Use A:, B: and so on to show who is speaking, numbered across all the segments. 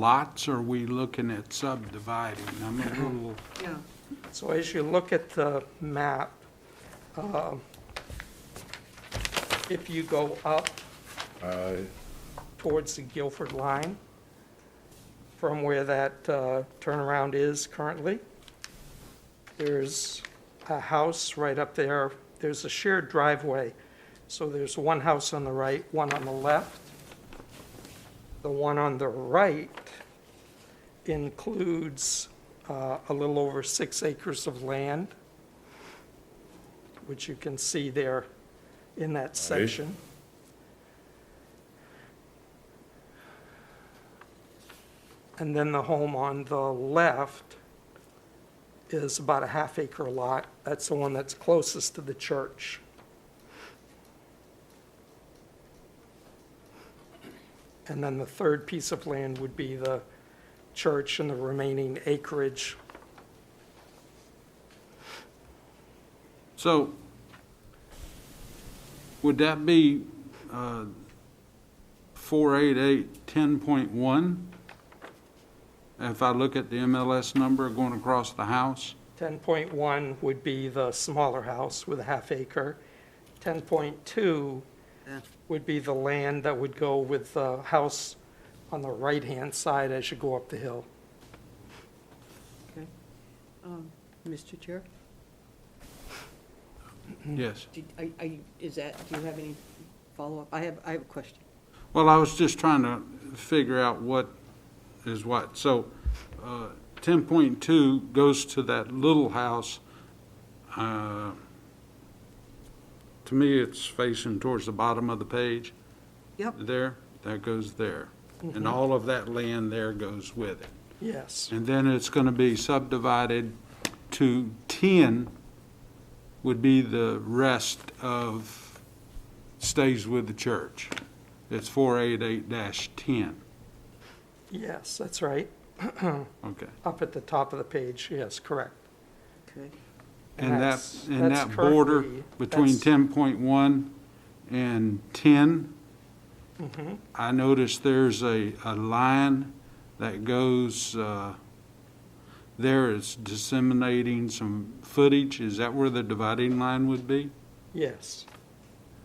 A: lots are we looking at subdividing? I'm a little,
B: Yeah,
C: So as you look at the map, um, if you go up
D: Uh,
C: towards the Guilford line from where that uh, turnaround is currently, there's a house right up there. There's a shared driveway. So there's one house on the right, one on the left. The one on the right includes uh, a little over six acres of land, which you can see there in that section. And then the home on the left is about a half acre lot. That's the one that's closest to the church. And then the third piece of land would be the church and the remaining acreage.
A: so would that be uh, 488, 10.1? If I look at the MLS number going across the house?
C: 10.1 would be the smaller house with a half acre. 10.2
B: Yeah.
C: would be the land that would go with the house on the right-hand side as you go up the hill.
B: okay. Um, Mr. Chair,
A: Yes.
B: did, are, are you, is that, do you have any follow-up? I have, I have a question.
A: Well, I was just trying to figure out what is what. So uh, 10.2 goes to that little house. Uh, To me, it's facing towards the bottom of the page.
B: Yep.
A: There, that goes there. And all of that land there goes with it.
C: Yes.
A: And then it's going to be subdivided to 10 would be the rest of, stays with the church. It's 488-10.
C: Yes, that's right.
A: Okay.
C: Up at the top of the page, yes, correct.
B: Okay,
A: And that,
C: that's-
A: and
C: that's
A: that border
C: currently-
A: between
C: that's-
A: 10.1 and 10,
C: Mm-hmm,
A: I noticed there's a, a line that goes, uh, there is disseminating some footage. Is that where the dividing line would be?
C: Yes,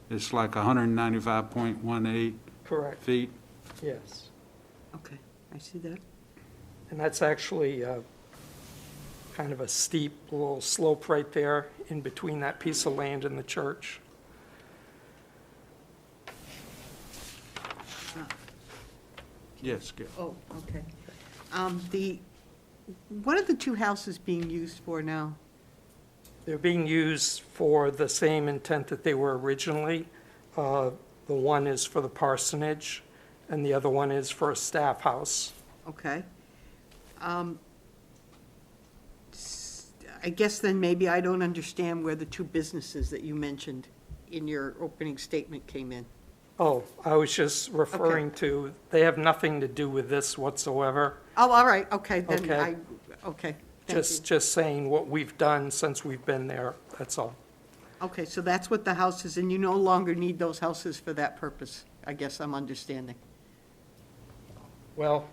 A: It's like 195.18
C: correct,
A: feet.
C: yes.
B: okay, I see that.
C: And that's actually uh, kind of a steep little slope right there in between that piece of land and the church.
A: Yes, Gil.
B: Oh, okay. Um, the, what are the two houses being used for now?
C: They're being used for the same intent that they were originally. Uh, The one is for the parsonage, and the other one is for a staff house.
B: Okay. Um, s- I guess then maybe I don't understand where the two businesses that you mentioned in your opening statement came in.
C: Oh, I was just referring to, they have nothing to do with this whatsoever.
B: Oh, all right, okay, then
C: Okay.
B: I, okay, thank you.
C: Just, just saying what we've done since we've been there, that's all.
B: Okay, so that's what the house is, and you no longer need those houses for that purpose, I guess I'm understanding.
C: Well,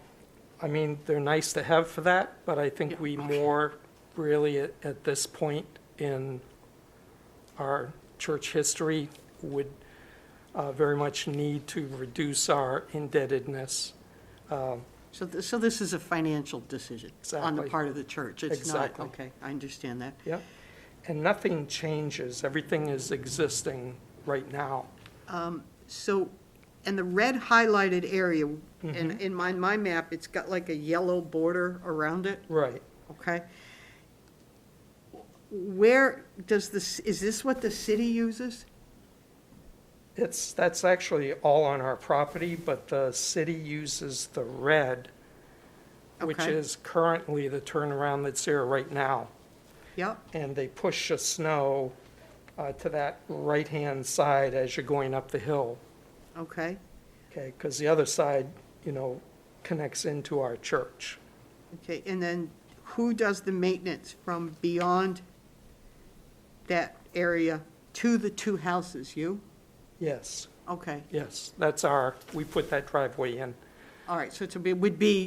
C: I mean, they're nice to have for that, but I think we more really at, at this point in our church history would uh, very much need to reduce our indebtedness.
B: So, th- so this is a financial decision on the
C: Exactly.
B: part of the church? It's not,
C: Exactly.
B: okay, I understand that.
C: Yep. And nothing changes. Everything is existing right now.
B: So, and the red highlighted area,
C: Mm-hmm.
B: and in my, my map, it's got like a yellow border around it,
C: Right.
B: okay? Where does this, is this what the city uses?
C: It's, that's actually all on our property, but the city uses the red, which
B: Okay.
C: is currently the turnaround that's there right now.
B: Yep,
C: and they push the snow uh, to that right-hand side as you're going up the hill,
B: okay.
C: okay? Because the other side, you know, connects into our church.
B: Okay, and then who does the maintenance from beyond that area to the two houses? You?
C: Yes,
B: Okay,
C: yes, that's our, we put that driveway in.
B: all right, so it's a- it would be